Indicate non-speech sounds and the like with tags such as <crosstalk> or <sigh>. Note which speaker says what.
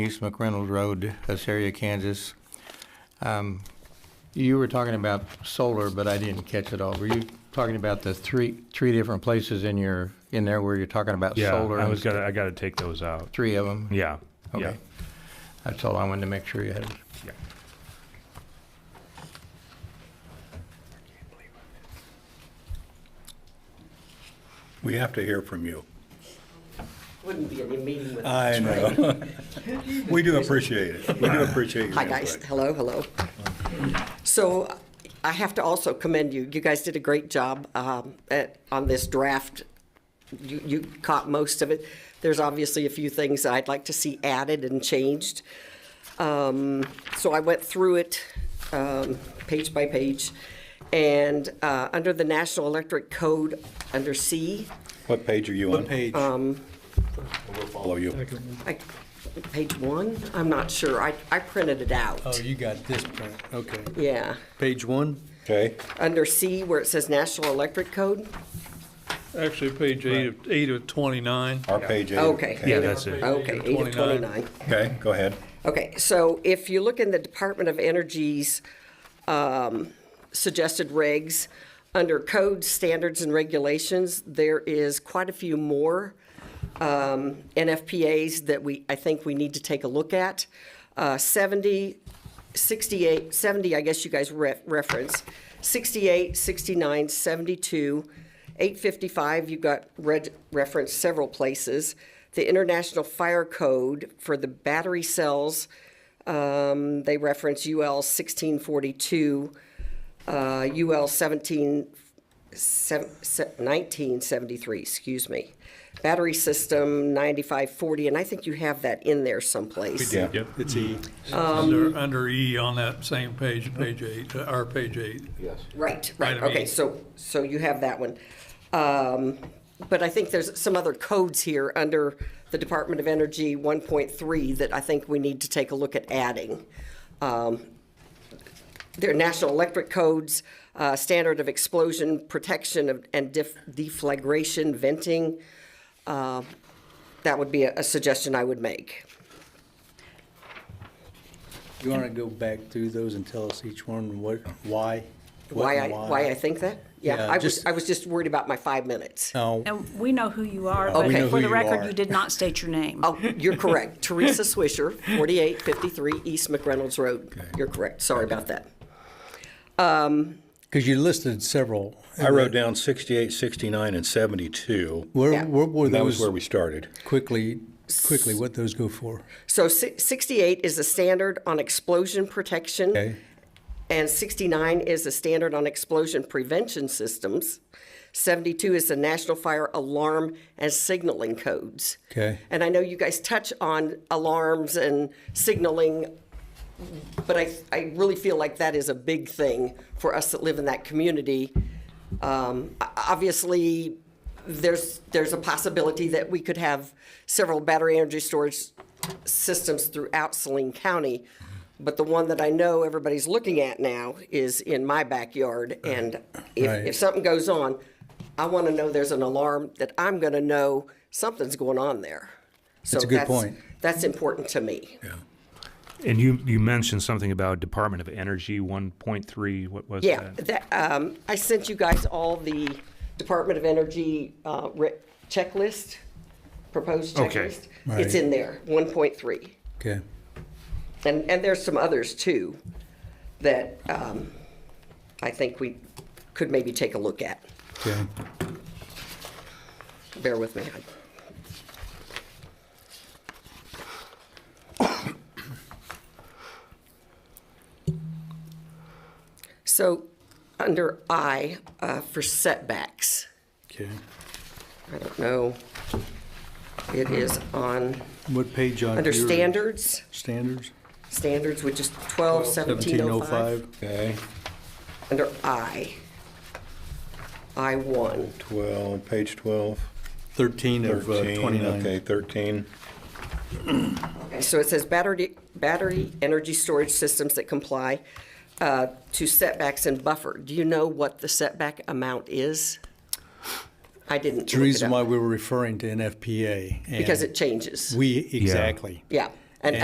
Speaker 1: East McReynolds Road, Assyria, Kansas. Um, You were talking about solar, but I didn't catch it all. Were you talking about the three, three different places in your, in there where you're talking about
Speaker 2: Yeah,
Speaker 1: solar?
Speaker 2: I
Speaker 1: and
Speaker 2: was gonna, I gotta take those out.
Speaker 1: Three of them?
Speaker 2: Yeah, yeah,
Speaker 1: Okay. That's all I wanted to make sure you had.
Speaker 2: yeah.
Speaker 3: We have to hear from you.
Speaker 4: Wouldn't be any meeting with.
Speaker 3: I know. <laughs> We do appreciate it. We do appreciate your
Speaker 4: Hi, guys.
Speaker 3: input.
Speaker 4: Hello, hello. So I have to also commend you. You guys did a great job um, at, on this draft. You, you caught most of it. There's obviously a few things that I'd like to see added and changed. Um, So I went through it um, page by page. And uh, under the National Electric Code, under C,
Speaker 3: What page are you on? What page?
Speaker 5: Um,
Speaker 3: We'll follow you.
Speaker 4: I- page one, I'm not sure. I, I printed it out.
Speaker 6: Oh, you got this print, okay.
Speaker 4: Yeah.
Speaker 6: Page one?
Speaker 3: Okay?
Speaker 4: under C where it says National Electric Code?
Speaker 5: Actually, page eight of, eight of twenty-nine.
Speaker 3: Our page eight.
Speaker 4: Okay.
Speaker 2: Yeah, that's it.
Speaker 4: Okay, eight of
Speaker 5: 29.
Speaker 4: twenty-nine.
Speaker 3: Okay, go ahead.
Speaker 4: Okay, so if you look in the Department of Energy's um, suggested regs, under codes, standards, and regulations, there is quite a few more um, NFPAs that we, I think we need to take a look at. Uh, 70, 68, 70, I guess you guys re- reference, 68, 69, 72, 855, you got read, referenced several places. The International Fire Code for the battery cells, um, they reference UL 1642, uh, UL 17, sev- se- 1973, excuse me. Battery system 9540, and I think you have that in there someplace.
Speaker 3: Yeah.
Speaker 6: It's E.
Speaker 5: Under, under E on that same page, page eight, uh, our page eight.
Speaker 4: Right, right,
Speaker 5: Item
Speaker 4: okay,
Speaker 5: E.
Speaker 4: so, so you have that one. Um, But I think there's some other codes here under the Department of Energy 1.3 that I think we need to take a look at adding. Their national electric codes, uh, standard of explosion protection of- and def- deflagration venting. Uh, That would be a a suggestion I would make.
Speaker 6: You want to go back through those and tell us each one what, why? what
Speaker 4: Why I,
Speaker 6: and
Speaker 4: why I think that?
Speaker 6: Yeah,
Speaker 4: Yeah, I was,
Speaker 6: just-
Speaker 4: I was just worried about my five minutes.
Speaker 6: No,
Speaker 7: And we know who you are,
Speaker 4: We know
Speaker 7: but for
Speaker 6: who
Speaker 7: the
Speaker 6: you
Speaker 7: record,
Speaker 6: are.
Speaker 7: you did not state your name.
Speaker 4: Oh, you're correct. <laughs> Teresa Swisher, 4853 East McReynolds Road. You're correct. Sorry about that.
Speaker 6: because you listed several.
Speaker 3: I wrote down 68, 69, and 72.
Speaker 4: Yeah.
Speaker 6: Where, where were
Speaker 3: That was
Speaker 6: those
Speaker 3: where we started.
Speaker 6: quickly, quickly, what those go for?
Speaker 4: So si- 68 is a standard on explosion protection.
Speaker 6: Okay,
Speaker 4: And 69 is the standard on explosion prevention systems. 72 is the National Fire Alarm and Signaling Codes.
Speaker 6: Okay.
Speaker 4: And I know you guys touch on alarms and signaling, but I, I really feel like that is a big thing for us that live in that community. Um, o- obviously, there's, there's a possibility that we could have several battery energy storage systems throughout Saline County. But the one that I know everybody's looking at now is in my backyard. And if,
Speaker 6: Right.
Speaker 4: if something goes on, I want to know there's an alarm that I'm going to know something's going on there. So
Speaker 6: That's a good point.
Speaker 4: That's important to me.
Speaker 2: And you, you mentioned something about Department of Energy one point three, what was
Speaker 4: Yeah,
Speaker 2: that?
Speaker 4: that, um, I sent you guys all the Department of Energy, uh, re- checklist, proposed
Speaker 2: Okay.
Speaker 4: checklist. It's
Speaker 6: Right.
Speaker 4: in there, one point three.
Speaker 6: okay.
Speaker 4: And, and there's some others too that, um, I think we could maybe take a look at.
Speaker 6: Okay.
Speaker 4: Bear with me. So, under I, uh, for setbacks,
Speaker 6: Okay.
Speaker 4: I don't know, it is on,
Speaker 6: What page on?
Speaker 4: under
Speaker 6: your
Speaker 4: standards,
Speaker 6: Standards?
Speaker 4: standards, which is 12, 1705,
Speaker 3: Okay,
Speaker 4: under I, I1.
Speaker 3: 12, page 12,
Speaker 6: 13 of uh,
Speaker 3: 13,
Speaker 6: 29.
Speaker 3: okay, 13.
Speaker 4: So it says battery, battery energy storage systems that comply uh, to setbacks and buffer. Do you know what the setback amount is? I didn't
Speaker 6: It's the
Speaker 4: look it
Speaker 6: reason why
Speaker 4: up.
Speaker 6: we were referring to NFPA.
Speaker 4: Because
Speaker 6: and
Speaker 4: it changes.
Speaker 6: We, exactly.
Speaker 4: Yeah,